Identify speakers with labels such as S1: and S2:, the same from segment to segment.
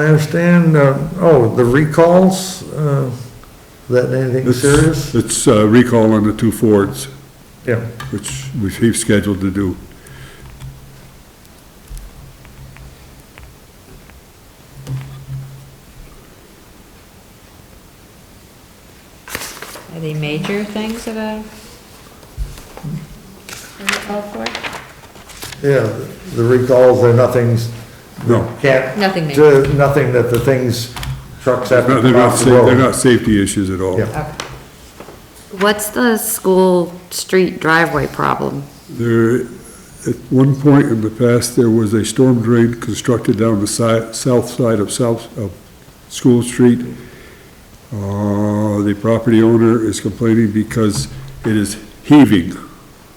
S1: I understand, uh, oh, the recalls, uh, is that anything
S2: It's-
S1: serious?
S2: It's uh, recall on the two Fords,
S1: Yeah.
S2: which we- he's scheduled to do.
S3: Are they major things that uh, are you called for?
S1: Yeah, the recalls, they're nothing's,
S2: No.
S1: can't.
S3: Nothing
S1: do- Nothing that the things, trucks have
S2: No,
S1: to
S2: They're not,
S1: cross
S2: sa-
S1: the
S2: they're
S1: road.
S2: not safety issues at all.
S1: Yeah.
S4: What's the school street driveway problem?
S2: There, at one point in the past, there was a storm drain constructed down the side, south side of South, of School Street. Uh, the property owner is complaining because it is heaving.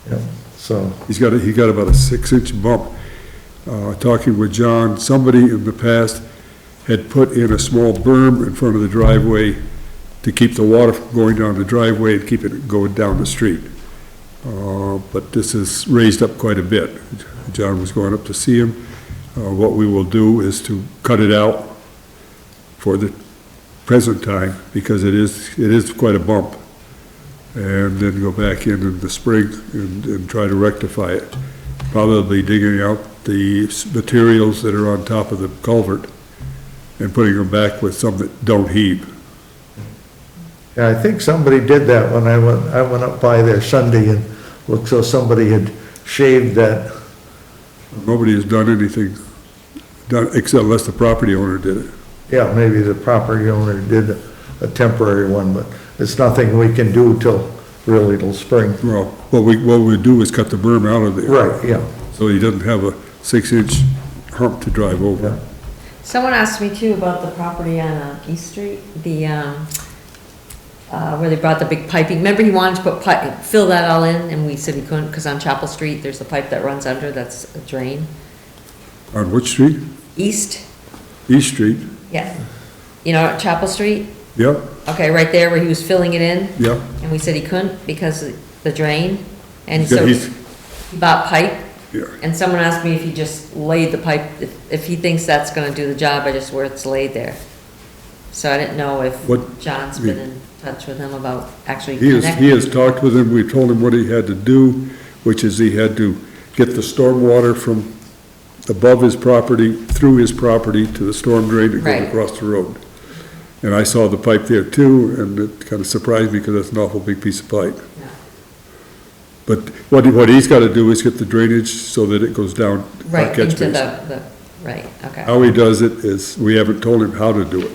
S1: Yeah, So,
S2: He's got, a- he got about a six-inch bump. Uh, Talking with John, somebody in the past had put in a small berm in front of the driveway to keep the water from going down the driveway and keep it going down the street. Uh, But this is raised up quite a bit. John was going up to see him. Uh, What we will do is to cut it out for the present time, because it is, it is quite a bump and then go back in in the spring and, and try to rectify it. Probably digging out the s- materials that are on top of the culvert and putting them back with some that don't heave.
S1: yeah, I think somebody did that when I went, I went up by there Sunday and looked, so somebody had shaved that,
S2: Nobody has done anything, done, except unless the property owner did it.
S1: yeah, maybe the property owner did a temporary one, but it's nothing we can do till really till spring.
S2: Well, what we, what we do is cut the berm out of there.
S1: Right, yeah.
S2: So he doesn't have a six-inch hump to drive over.
S3: Someone asked me too about the property on uh, East Street, the, um, uh, where they brought the big piping. Remember he wanted to put pipe, fill that all in and we said he couldn't because on Chapel Street, there's a pipe that runs under that's a drain.
S2: On which street?
S3: East,
S2: East Street.
S3: yeah. You know, Chapel Street?
S2: Yep,
S3: Okay, right there where he was filling it in.
S2: yep.
S3: And we said he couldn't because of the drain. And
S2: Yeah,
S3: so
S2: he's-
S3: he bought pipe
S2: Yeah.
S3: And someone asked me if he just laid the pipe, if, if he thinks that's gonna do the job, I just, where it's laid there. So I didn't know if
S2: What-
S3: John's been in touch with him about actually
S2: He has, he
S3: connecting.
S2: has talked with him, we told him what he had to do, which is he had to get the stormwater from above his property, through his property to the storm drain that
S3: Right.
S2: goes across the road. And I saw the pipe there too, and it kind of surprised me because that's an awful big piece of pipe.
S3: Yeah.
S2: But what, he- what he's got to do is get the drainage so that it goes down. our
S3: Right,
S2: catch
S3: into the,
S2: basin.
S3: the, right, okay,
S2: How he does it is, we haven't told him how to do it,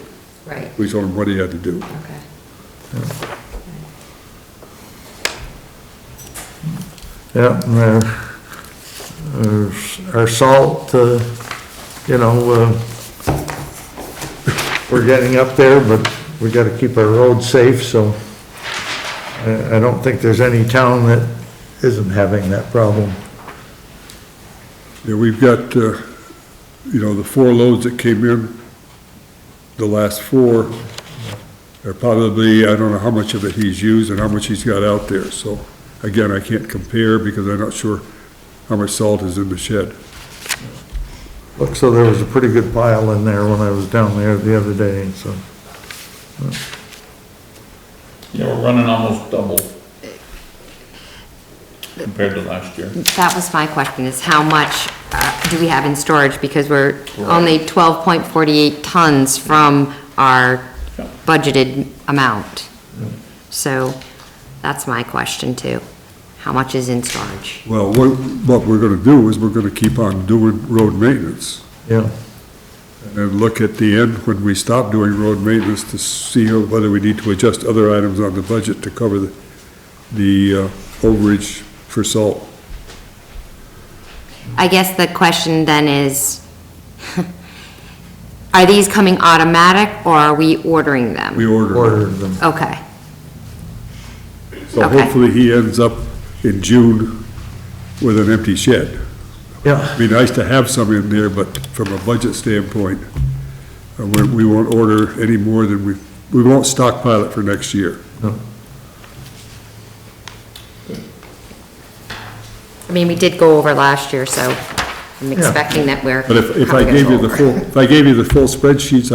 S3: right,
S2: we told him what he had to do.
S3: okay.
S1: Yeah, and our- our, our salt, uh, you know, uh, we're getting up there, but we gotta keep our roads safe, so I, I don't think there's any town that isn't having that problem.
S2: Yeah, we've got, uh, you know, the four loads that came in, the last four, are probably, I don't know how much of it he's used and how much he's got out there. So again, I can't compare because I'm not sure how much salt is in the shed.
S1: Looks so there was a pretty good pile in there when I was down there the other day, so.
S5: Yeah, we're running almost double compared to last year.
S4: That was my question, is how much uh, do we have in storage? Because we're only 12.48 tons from our
S5: Yeah.
S4: budgeted amount. So that's my question too. How much is in storage?
S2: Well, what, what we're gonna do is we're gonna keep on doing road maintenance
S1: Yeah,
S2: and look at the end when we stop doing road maintenance to see whether we need to adjust other items on the budget to cover the, the uh, overage for salt.
S4: I guess the question then is, are these coming automatic or are we ordering them?
S2: We ordered.
S1: ordered them.
S4: Okay,
S2: So
S4: Okay.
S2: hopefully he ends up in June with an empty shed.
S1: Yeah,
S2: Be nice to have some in there, but from a budget standpoint, uh, we, we won't order any more than we, we won't stockpile it for next year.
S4: I mean, we did go over last year, so I'm expecting that we're.
S2: But if, if I
S4: probably gonna
S2: gave you
S4: go
S2: the
S4: over.
S2: full, if I gave you the full spreadsheets